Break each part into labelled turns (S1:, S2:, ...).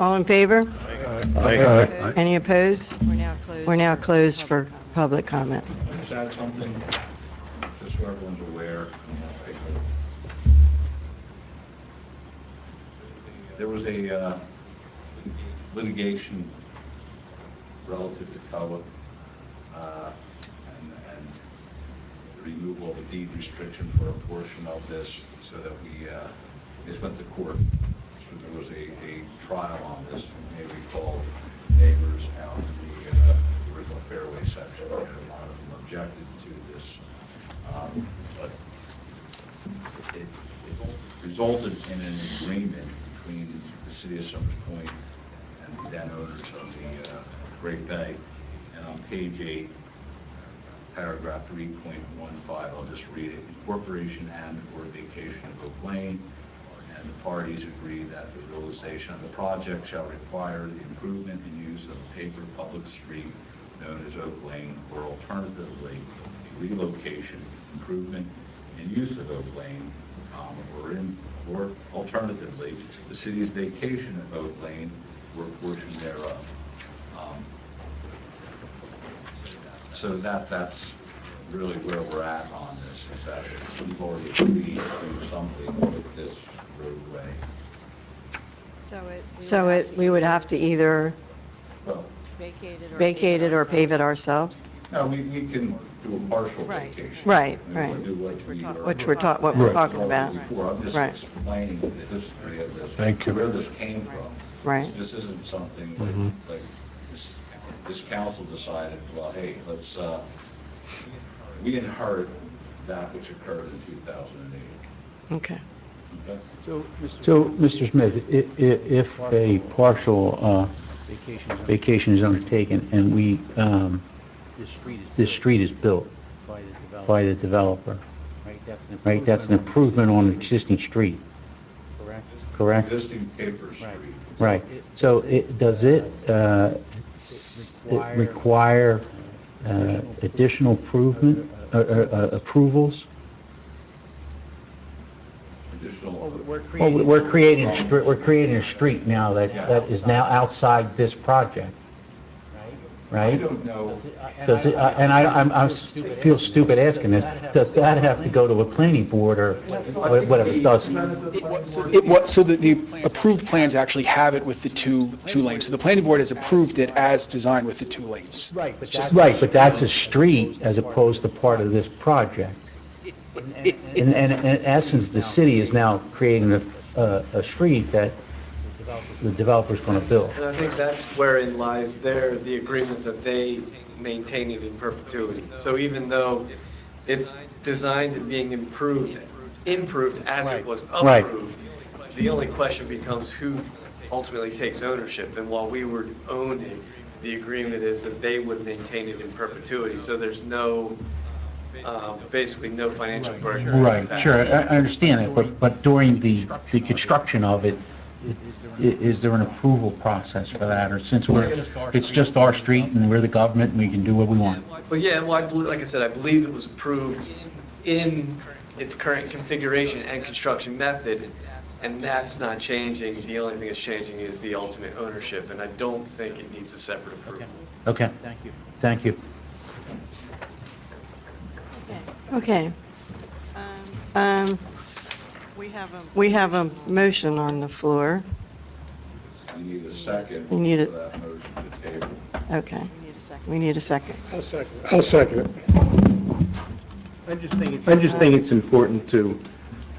S1: All in favor?
S2: Aye.
S1: Any opposed?
S3: We're now closed.
S1: We're now
S3: for
S1: closed for
S3: public comment.
S1: public comment.
S4: Is that something, just so everyone's aware, you know, like, there was a uh, litigation relative to COA, uh, and, and the removal of a deed restriction for a portion of this, so that we, uh, this went to court. So there was a, a trial on this, and we called neighbors out in the, uh, original fairway section, and a lot of them objected to this. Um, But it it resulted in an agreement between the city of Summers Point and the then owners of the uh, Great Bay. And on page eight, paragraph three point one five, I'll just read it. Incorporation and or vacation of Oak Lane, and the parties agree that the realization of the project shall require the improvement and use of a paper public street known as Oak Lane, or alternatively, relocation, improvement, and use of Oak Lane, um, or in, or alternatively, the city's vacation of Oak Lane, or a portion thereof. Um, so that, that's really where we're at on this, is that we've already agreed to do something with this roadway.
S3: So it. we
S1: So
S3: would have
S1: it,
S3: to
S1: we would have to either
S4: Well,
S3: Vacate it or.
S1: vacate it or pave it
S3: ourselves.
S1: ourselves,
S4: no, we, we can do a partial
S3: Right.
S4: vacation.
S1: Right,
S4: We wanna
S1: right.
S4: do what
S3: Which we're
S4: we
S3: talking
S4: are-
S1: which we're talk, what we're
S2: Right.
S1: talking about.
S4: Before, I'm just
S1: Right.
S4: explaining the history of this.
S2: Thank you.
S4: Where this came from.
S1: Right. Mm-hmm.
S4: This isn't something
S2: Mhm.
S4: like- like, this, this council decided, well, hey, let's, uh, we inherit that which occurred in 2008.
S1: Okay.
S4: Okay?
S5: So, Mr. Smith, i- i- if a partial uh,
S6: Vacation is on
S5: vacation is undertaken and we, um,
S6: this street is.
S5: this street is built
S6: By the
S5: by
S6: developer,
S5: the developer,
S6: right? That's an
S5: right, that's an improvement on an existing street,
S6: Correct?
S5: correct?
S4: Existing paper
S6: Right.
S4: street.
S5: Right,
S6: it-
S5: so
S6: does
S5: it, does it uh, s- it
S6: require-
S5: require uh, additional improvement, uh, uh, uh, approvals?
S6: Well,
S4: Additional,
S6: we're
S5: Well,
S6: creating.
S5: we're creating, a str- we're creating a street now that,
S4: Yeah.
S5: that is now outside this project,
S6: right?
S4: I
S5: right?
S4: don't know,
S6: Does it- I-
S5: Does it, I- and I, I'm, I feel stupid asking this, does that have to go to a planning board or wha- whatever, it does?
S7: It wa- so the- It was, so that the approved plans actually have it with the two, two lanes. So the planning board has approved it as designed with the two lanes.
S6: Right, but that's.
S5: Right, but that's a street as opposed to part of this project.
S6: And- and-
S5: And, and and in essence, the city is now creating a, a, a street that the developer's gonna build.
S8: And I think that's wherein lies there, the agreement that they maintain it in perpetuity. So even though it's designed and being improved, improved as it was
S5: Right.
S8: approved, the only question becomes who ultimately takes ownership. And while we were owning, the agreement is that they would maintain it in perpetuity. So there's no, um, basically no financial burden.
S5: Right, sure, I, I understand that, but, but during the, the construction of it, i- is there an approval process for that? Or since we're, it's just our street and we're the government and we can do what we want?
S8: But yeah, well, I believe, like I said, I believe it was approved in its current configuration and construction method, and that's not changing. The only thing that's changing is the ultimate ownership, and I don't think it needs a separate approval.
S5: Okay,
S6: Thank you.
S5: thank you.
S1: Okay.
S3: Um,
S1: Um,
S3: we have a.
S1: we have a motion on the floor.
S4: we need a second.
S1: We need it.
S4: For that motion to table.
S1: Okay.
S3: We need a second.
S1: We need a second.
S9: I'll second it.
S2: I'll second it.
S6: I just think it's
S2: I just think it's important to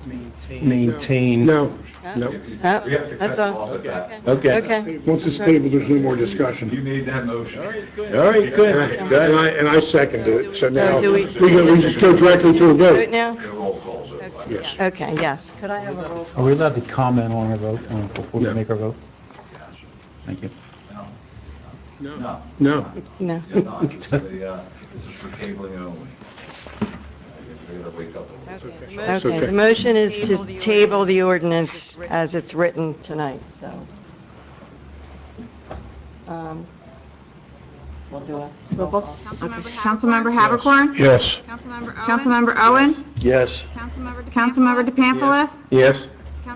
S6: maintained.
S2: maintain. No,
S3: Huh?
S2: no.
S4: We
S1: Oh,
S4: have to
S1: that's
S4: cut
S1: all.
S4: off at that.
S3: Okay.
S2: Okay.
S1: Okay.
S9: Once it's tabled, there's no more
S4: You
S9: discussion.
S4: made that motion.
S2: All right, good.
S9: And I, and I seconded it, so now,
S1: do
S9: we
S1: we-
S9: go- we just go directly to
S1: Do
S9: a
S1: it
S9: vote.
S1: now?
S4: Your roll calls over.
S3: Okay,
S9: Yes.
S3: yeah.
S1: Okay, yes. Could I have a roll?
S5: Are we allowed to comment on our vote, uh, before we
S2: No.
S5: make our vote?
S4: Yes.
S5: Thank you.
S4: No. No.
S2: No.
S1: No.
S4: You're not. The, uh, This is for tabling only. You're gonna wake up a little.
S3: Okay, the
S2: It's
S1: Okay, the
S2: okay.
S1: motion is
S3: Table
S1: to
S3: the
S1: table the
S3: ordinance
S1: ordinance as it's written tonight, so. Um, We'll do a roll call.
S10: Councilmember Havercorn?
S2: Yes.
S10: Councilmember Owen? Councilmember Owen?
S2: Yes.
S10: Councilmember DePamphlis?
S2: Yes.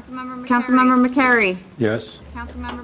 S10: Councilmember McCary?
S2: Yes.
S10: Councilmember